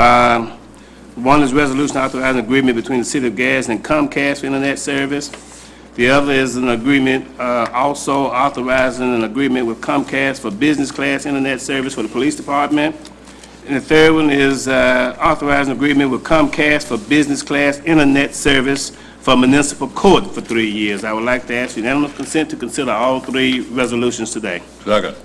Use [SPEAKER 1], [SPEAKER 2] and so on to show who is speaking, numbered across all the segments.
[SPEAKER 1] Um, One is resolution authorizing agreement between the City of Gadsden and Comcast for Internet Service. The other is an agreement, uh, also authorizing an agreement with Comcast for business class internet service for the police department. And the third one is uh, authorizing agreement with Comcast for business class internet service for municipal court for three years. I would like to ask unanimous consent to consider all three resolutions today.
[SPEAKER 2] Second.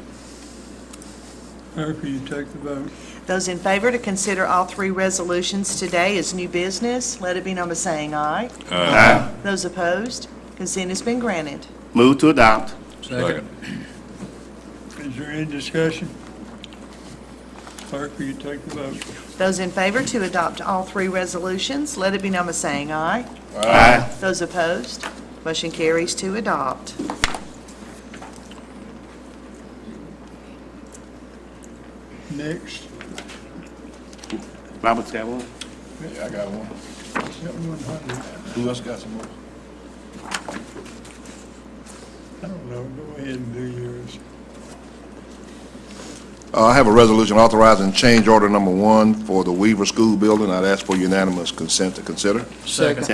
[SPEAKER 3] Clerk, will you take the vote?
[SPEAKER 4] Those in favor to consider all three resolutions today as new business, let it be known by saying aye.
[SPEAKER 1] Aye.
[SPEAKER 4] Those opposed, consent has been granted.
[SPEAKER 1] Move to adopt.
[SPEAKER 2] Second.
[SPEAKER 3] Is there any discussion? Clerk, will you take the vote?
[SPEAKER 4] Those in favor to adopt all three resolutions, let it be known by saying aye.
[SPEAKER 1] Aye.
[SPEAKER 4] Those opposed, motion carries to adopt.
[SPEAKER 3] Next,
[SPEAKER 1] Robert's got one?
[SPEAKER 2] Yeah, I got one.
[SPEAKER 3] seven one hundred.
[SPEAKER 2] Who else got some more?
[SPEAKER 3] I don't know, go ahead and do yours.
[SPEAKER 5] Uh, I have a resolution authorizing change order number one for the Weaver School Building. I'd ask for unanimous consent to consider.
[SPEAKER 1] Second.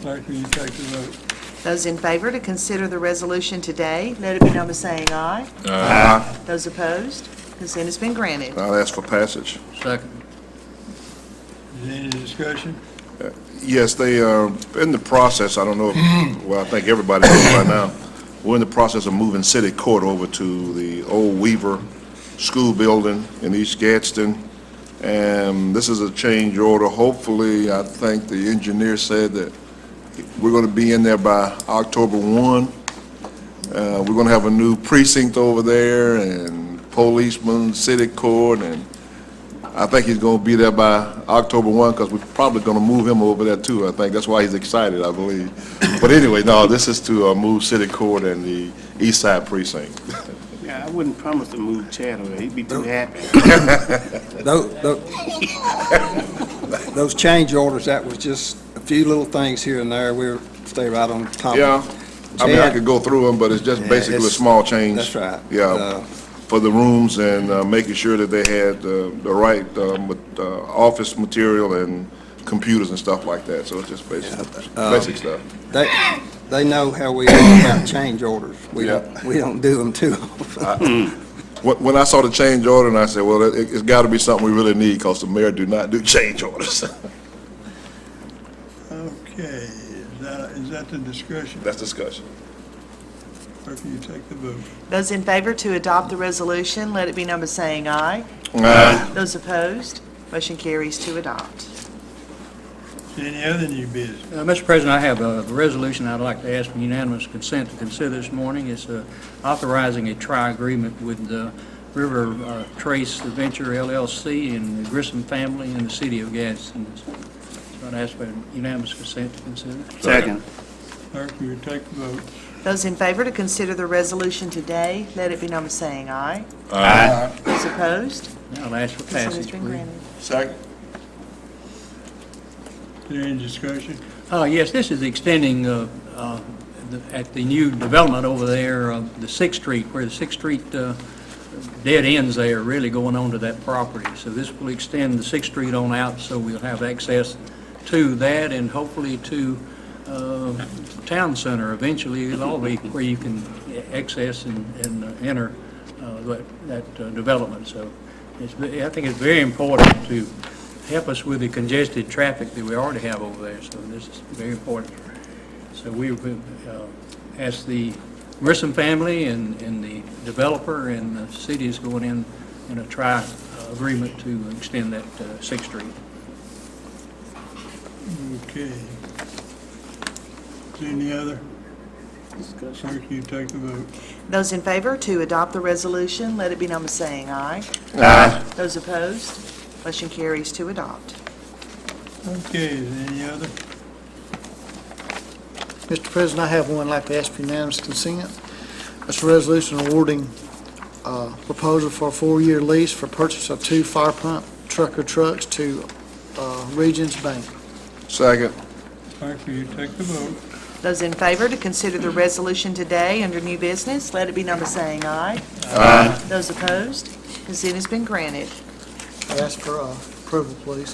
[SPEAKER 3] Clerk, will you take the vote?
[SPEAKER 4] Those in favor to consider the resolution today, let it be known by saying aye.
[SPEAKER 5] Aye.
[SPEAKER 4] Those opposed, consent has been granted.
[SPEAKER 5] I'd ask for passage.
[SPEAKER 3] Is there any discussion?
[SPEAKER 5] Yes, they are in the process, I don't know, if- well, I think everybody knows by now, we're in the process of moving city court over to the old Weaver School Building in East Gadsden, and this is a change order. Hopefully, I think the engineer said that we're going to be in there by October 1. Uh, We're going to have a new precinct over there, and policemen, city court, and I think he's going to be there by October 1, because we're probably going to move him over there too, I think. That's why he's excited, I believe. But anyway, no, this is to uh, move City Court and the East Side Precinct.
[SPEAKER 1] Yeah, I wouldn't promise to move Chad over. He'd be too happy.
[SPEAKER 6] Tho- tho- Those change orders, that was just a few little things here and there. We'll stay right on top. of it.
[SPEAKER 5] Yeah, I mean, I
[SPEAKER 6] Chad?
[SPEAKER 5] could go through them, but it's just
[SPEAKER 6] Yeah,
[SPEAKER 5] basically a
[SPEAKER 6] it's-
[SPEAKER 5] small change.
[SPEAKER 6] that's right.
[SPEAKER 5] Yeah,
[SPEAKER 6] Uh,
[SPEAKER 5] for the rooms and uh, making sure that they had uh, the right uh, ma- uh, office material and computers and stuff like that, so it's just basic,
[SPEAKER 6] um,
[SPEAKER 5] basic stuff.
[SPEAKER 6] They, they know how we are about change orders. We don't, we don't do them too often.
[SPEAKER 5] When, when I saw the change order, and I said, well, it, it's got to be something we really need, because the mayor do not do change orders.
[SPEAKER 3] Okay, is that, is that the discussion?
[SPEAKER 5] That's discussion.
[SPEAKER 3] Clerk, will you take the vote?
[SPEAKER 4] Those in favor to adopt the resolution, let it be known by saying aye. Those opposed, motion carries to adopt.
[SPEAKER 3] Is there any other new business?
[SPEAKER 7] Uh, Mr. President, I have a resolution I'd like to ask for unanimous consent to consider this morning. It's uh, authorizing a tri-agreement with the River uh, Trace Venture LLC and the Grissom family and the city of Gadsden. So I'd ask for unanimous consent to consider.
[SPEAKER 1] Second.
[SPEAKER 3] Clerk, will you take the vote?
[SPEAKER 4] Those in favor to consider the resolution today, let it be known by saying aye.
[SPEAKER 1] Aye.
[SPEAKER 4] Those opposed,
[SPEAKER 7] Now I'll ask for
[SPEAKER 4] consent has
[SPEAKER 7] passage,
[SPEAKER 4] been
[SPEAKER 7] please.
[SPEAKER 4] granted.
[SPEAKER 5] Second.
[SPEAKER 3] Is there any discussion?
[SPEAKER 7] Uh, Yes, this is extending uh, uh, the- at the new development over there, uh, the Sixth Street, where the Sixth Street uh, dead ends there, really going onto that property. So this will extend the Sixth Street on out, so we'll have access to that and hopefully to uh, Town Center eventually. It'll all be where you can access and and uh, enter uh, that- that uh, development. So it's, ve- I think it's very important to help us with the congested traffic that we already have over there, so this is very important. So we would uh, ask the Grissom family and and the developer and the city is going in, in a tri uh, agreement to extend that uh, Sixth Street.
[SPEAKER 3] Okay. Is there any other? Clerk, will you take the vote?
[SPEAKER 4] Those in favor to adopt the resolution, let it be known by saying aye.
[SPEAKER 1] Aye.
[SPEAKER 4] Those opposed, motion carries to adopt.
[SPEAKER 3] Okay, is there any other?
[SPEAKER 8] Mr. President, I have one I'd like to ask for unanimous consent. It's a resolution awarding uh, proposal for a four-year lease for purchase of two fire pump trucker trucks to uh, Regions Bank.
[SPEAKER 5] Second.
[SPEAKER 3] Clerk, will you take the vote?
[SPEAKER 4] Those in favor to consider the resolution today under new business, let it be known by saying aye. Those opposed, consent has been granted.
[SPEAKER 8] I ask for uh, approval, please.